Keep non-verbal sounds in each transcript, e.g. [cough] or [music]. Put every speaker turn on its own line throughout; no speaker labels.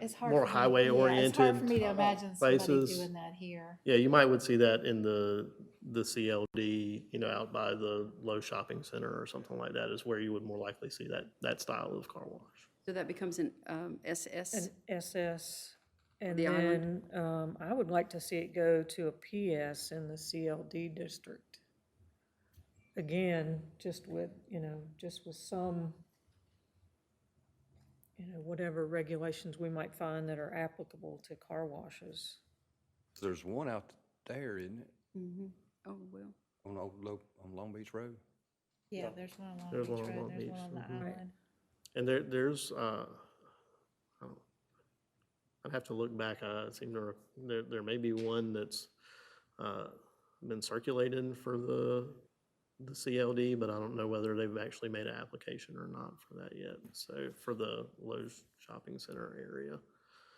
It's hard
more
for me-
highway
yeah, It's hard for
oriented
me to imagine somebody
places.
doing that here.
Yeah, you might would see that in the, the CLD, you know, out by the Low Shopping Center or something like that is where you would more likely see that, that style of car wash.
So that becomes an um, SS,
An SS, and
The
then,
island?
um, I would like to see it go to a PS in the CLD district. Again, just with, you know, just with some, you know, whatever regulations we might find that are applicable to car washes.
There's one out there, isn't it,
mm-hmm.
oh, well,
on Old Lo, on Long Beach Road?
Yeah, there's one on Long
There's
Beach
one on Long
Road, there's
Beach,
one on the
mhm.
Right.
island.
And there, there's, uh, I don't- I'd have to look back, I seem to, rec- there, there may be one that's, uh, been circulated for the, the CLD, but I don't know whether they've actually made an application or not for that yet. So for the Lowe's Shopping Center area.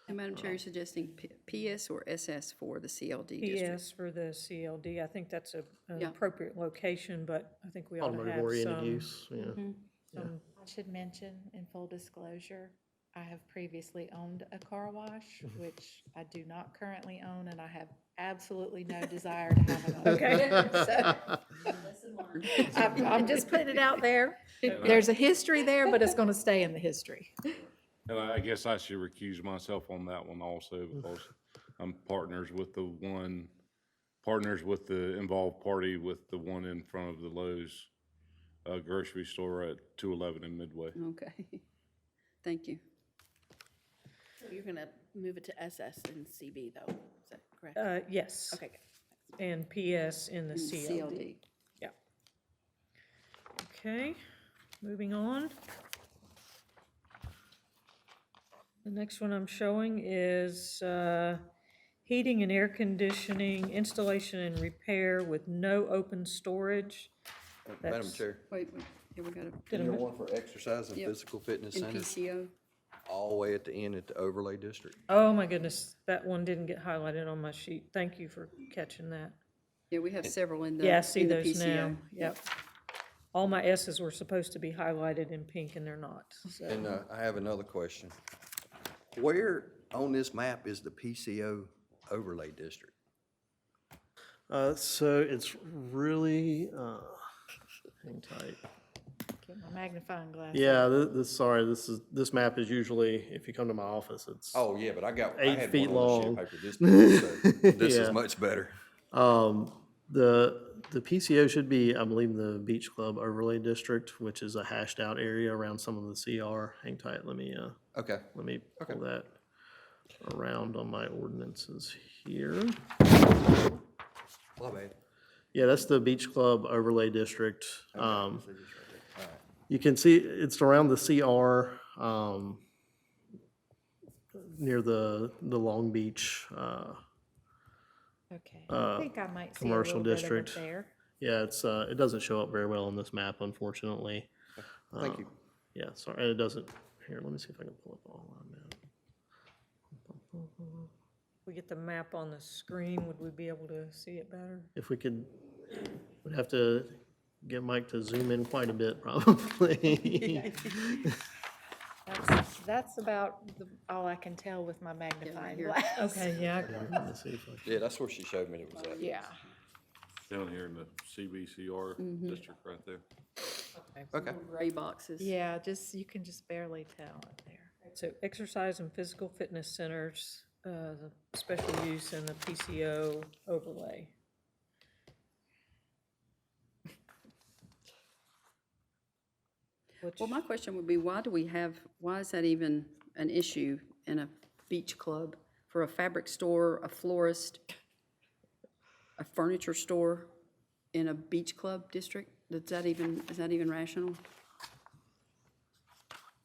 and Madam Chair, you're suggesting P- PS or SS for the CLD district?
PS for the CLD, I think that's a, an
Yeah.
appropriate location, but I think we ought to
Automotive
have
oriented
some,
use, yeah.
Mm-hmm. some
I should mention, in full disclosure, I have previously owned a car wash,
[laughs]
which I do not currently own, and I have absolutely no desire to have another.
[laughs] Okay.
[laughs]
[laughs]
I'm, I'm just putting it out there. There's a history there, but it's gonna stay in the history.
And I I guess I should recuse myself on that one also because I'm partners with the one, partners with the involved party with the one in front of the Lowe's uh, grocery store at 211 and Midway.
Okay, [laughs] thank you.
You're gonna move it to SS and CB though, is that correct?
Uh, yes.
Okay, good.
And PS in the
And
CLD. Yeah. Okay, moving on. The next one I'm showing is uh, heating and air conditioning, installation and repair with no open storage.
Madam
That's-
Chair,
Wait, wait, here we got a,
you know one for exercise and
Yep.
physical fitness
in
centers,
PCO,
all the way at the end at the overlay district.
Oh, my goodness, that one didn't get highlighted on my sheet. Thank you for catching that.
yeah, we have several in the,
Yeah, I see
in the
those now.
PCO.
Yep. All my S's were supposed to be highlighted in pink and they're not, so.
And, uh, I have another question. Where on this map is the PCO overlay district?
Uh, so it's really, uh, hang tight.
Get my magnifying glass.
Yeah, this, this, sorry, this is, this map is usually, if you come to my office, it's,
Oh, yeah, but I got, I
Eight
had
feet
one on
long.
the sheet paper [laughs] this big, so this
Yeah.
is much better.
um, the, the PCO should be, I believe, the Beach Club Overlay District, which is a hashed out area around some of the CR. Hang tight, let me, uh,
Okay,
let me pull that around on my ordinances here.
my bad.
Yeah, that's the Beach Club Overlay District. Um, you can see it's around the CR, um, near the, the Long Beach, uh,
Okay, I think I might see a
commercial
little bit of it
district.
there.
yeah, it's, uh, it doesn't show up very well on this map, unfortunately.
Thank you.
Yeah, sorry, and it doesn't, here, let me see if I can pull up all of that.
we get the map on the screen, would we be able to see it better?
If we could, we'd have to get Mike to zoom in quite a bit, [laughs] probably.
That's, that's about the- all I can tell with my magnifying
here.
glass. [laughs]
Okay, yeah,
Let me see if I can-
Yeah, that's where she showed me it was at.
Yeah.
Down here in the CBCR district right there.
Okay.
Gray boxes.
Yeah, just, you can just barely tell up there.
so exercise and physical fitness centers, uh, the special use and the PCO overlay. Which,
Well, my question would be, why do we have, why is that even an issue in a beach club for a fabric store, a florist, a furniture store in a beach club district? Is that even, is that even rational?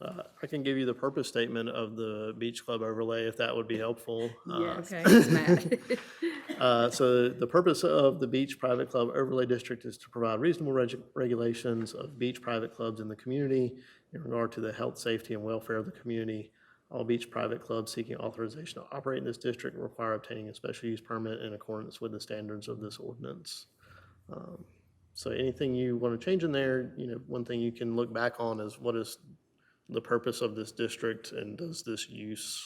I can give you the purpose statement of the Beach Club overlay if that would be helpful. Uh,
Yes,
okay.
please, Matt. [laughs]
Uh, So the purpose of the Beach Private Club Overlay District is to provide reasonable reg- regulations of beach private clubs in the community in regard to the health, safety, and welfare of the community. All beach private clubs seeking authorization to operate in this district require obtaining a special use permit in accordance with the standards of this ordinance. Um, So anything you want to change in there, you know, one thing you can look back on is what is the purpose of this district and does this use